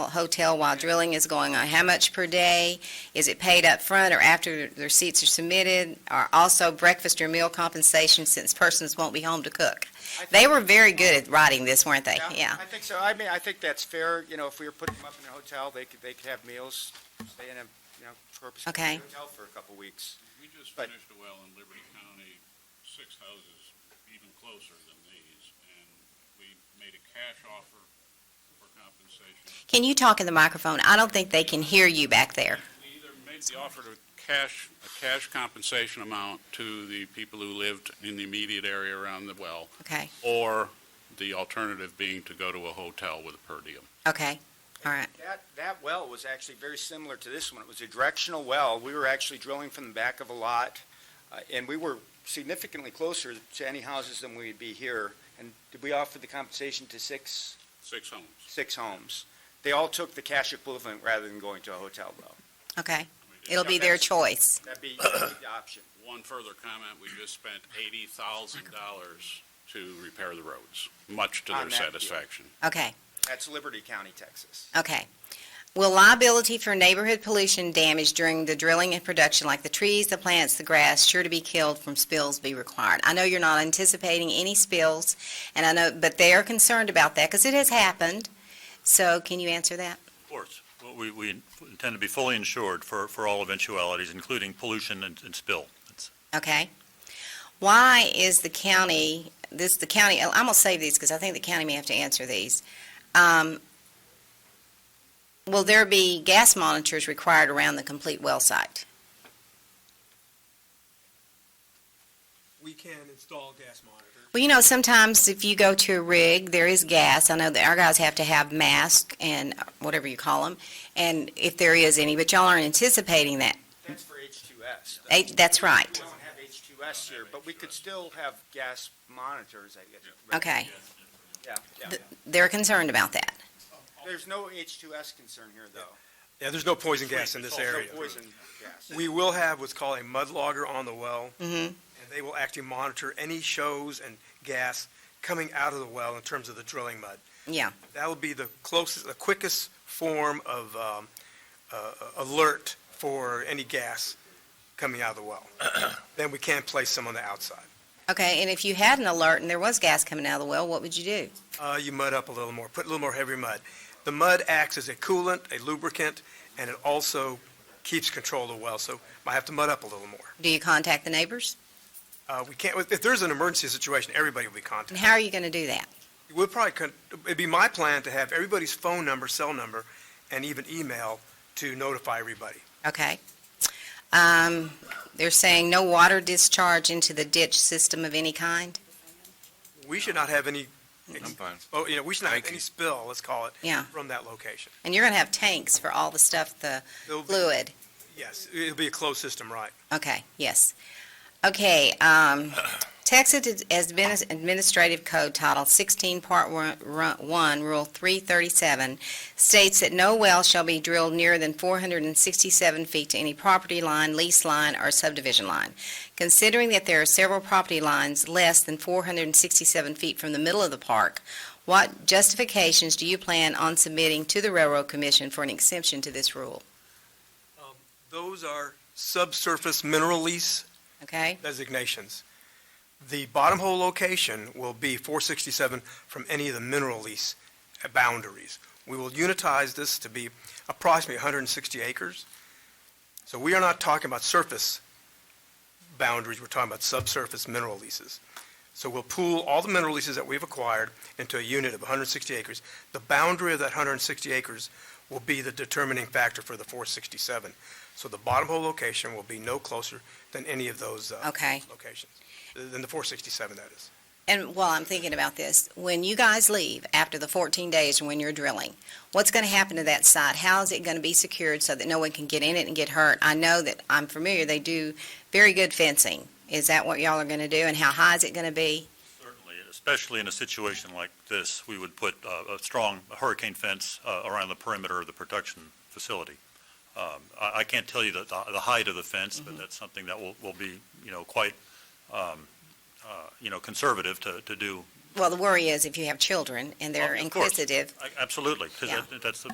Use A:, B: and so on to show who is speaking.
A: hotel while drilling is going on? How much per day? Is it paid up front or after the receipts are submitted? Are also breakfast or meal compensation since persons won't be home to cook?
B: I think-
A: They were very good at writing this, weren't they? Yeah.
B: I think so. I mean, I think that's fair, you know, if we were putting them up in a hotel, they could, they could have meals, stay in a, you know, purpose.
A: Okay.
B: Hotel for a couple weeks.
C: We just
B: But-
C: finished a well in Liberty County, six houses even closer than these, and we made a cash offer for compensation.
A: Can you talk in the microphone? I don't think they can hear you back there.
C: We either made the offer to cash, a cash compensation amount to the people who lived in the immediate area around the well,
A: Okay,
C: or the alternative being to go to a hotel with a per diem.
A: okay, all right.
B: That, that well was actually very similar to this one. It was a directional well. We were actually drilling from the back of a lot, uh, and we were significantly closer to any houses than we'd be here. And did we offer the compensation to six,
C: Six homes.
B: six homes? They all took the cash equivalent rather than going to a hotel, though.
A: Okay,
C: We did-
A: it'll be their choice.
B: That'd be that'd be the option.
C: One further comment, we just spent eighty thousand dollars to repair the roads, much to
B: On
C: their
B: that deal.
C: satisfaction.
A: Okay,
B: That's Liberty County, Texas.
A: okay. Will liability for neighborhood pollution damage during the drilling and production, like the trees, the plants, the grass, sure to be killed from spills be required? I know you're not anticipating any spills, and I know, but they are concerned about that because it has happened. So can you answer that?
D: Of course. Well, we, we intend to be fully insured for, for all eventualities, including pollution and, and spill. That's-
A: Okay. Why is the county, this, the county, I'm gonna save these because I think the county may have to answer these. Um, Will there be gas monitors required around the complete well site?
E: we can install gas monitor.
A: Well, you know, sometimes if you go to a rig, there is gas. I know that our guys have to have masks and uh, whatever you call them, and if there is any, but y'all aren't anticipating that.
B: That's for H2S. though.
A: Eh, That's
B: We
A: right.
B: don't have H2S here, but we could still have gas monitors, I guess. right?
A: Okay.
B: Yeah, yeah.
A: Th- They're concerned about that.
B: There's no H2S concern here, though.
E: Yeah, there's no poison gas in this
B: No
E: area.
B: poison gas.
E: We will have what's called a mud logger on the well,
A: Mm-hmm.
E: and they will actually monitor any shows and gas coming out of the well in terms of the drilling mud.
A: Yeah,
E: That will be the closest, the quickest form of um, uh, alert for any gas coming out of the well. Then we can place some on the outside.
A: okay, and if you had an alert and there was gas coming out of the well, what would you do?
E: Uh, You mud up a little more, put a little more heavy mud. The mud acts as a coolant, a lubricant, and it also keeps control of the well, so might have to mud up a little more.
A: Do you contact the neighbors?
E: Uh, we can't, if there's an emergency situation, everybody will be
A: And
E: contacted.
A: how are you going to do that?
E: We'll probably, con- it'd be my plan to have everybody's phone number, cell number, and even email to notify everybody.
A: Okay. Um, They're saying no water discharge into the ditch system of any kind?
E: We should not have any, ex-
F: fine.
E: oh, you know, we should not have
F: Thank
E: any
F: you.
E: spill, let's call it,
A: Yeah,
E: from that location.
A: and you're going to have tanks for all the stuff, the
E: There'll be-
A: fluid?
E: Yes, it'll be a closed system, right.
A: Okay, yes. Okay, um, Texas is- has been as Administrative Code Title 16, Part 1, Rule 337, states that no well shall be drilled nearer than 467 feet to any property line, lease line, or subdivision line. Considering that there are several property lines less than 467 feet from the middle of the park, what justifications do you plan on submitting to the Railroad Commission for an exemption to this rule?
E: Those are subsurface mineral lease
A: Okay?
E: designations. The bottom hole location will be 467 from any of the mineral lease boundaries. We will unitize this to be approximately 160 acres. So we are not talking about surface boundaries, we're talking about subsurface mineral leases. So we'll pool all the mineral leases that we've acquired into a unit of 160 acres. The boundary of that 160 acres will be the determining factor for the 467. So the bottom hole location will be no closer than any of those uh,
A: Okay.
E: locations, than the 467, that is.
A: And while I'm thinking about this, when you guys leave after the 14 days and when you're drilling, what's going to happen to that site? How is it going to be secured so that no one can get in it and get hurt? I know that, I'm familiar, they do very good fencing. Is that what y'all are going to do, and how high is it going to be?
D: Certainly, especially in a situation like this, we would put uh, a strong hurricane fence uh, around the perimeter of the production facility. Um, I I can't tell you the the height of the fence, but that's something that will will be, you know, quite, um, uh, you know, conservative to to do.
A: Well, the worry is if you have children and they're
D: Of course.
A: inquisitive,
D: I- Absolutely, because
A: Yeah.
D: that's the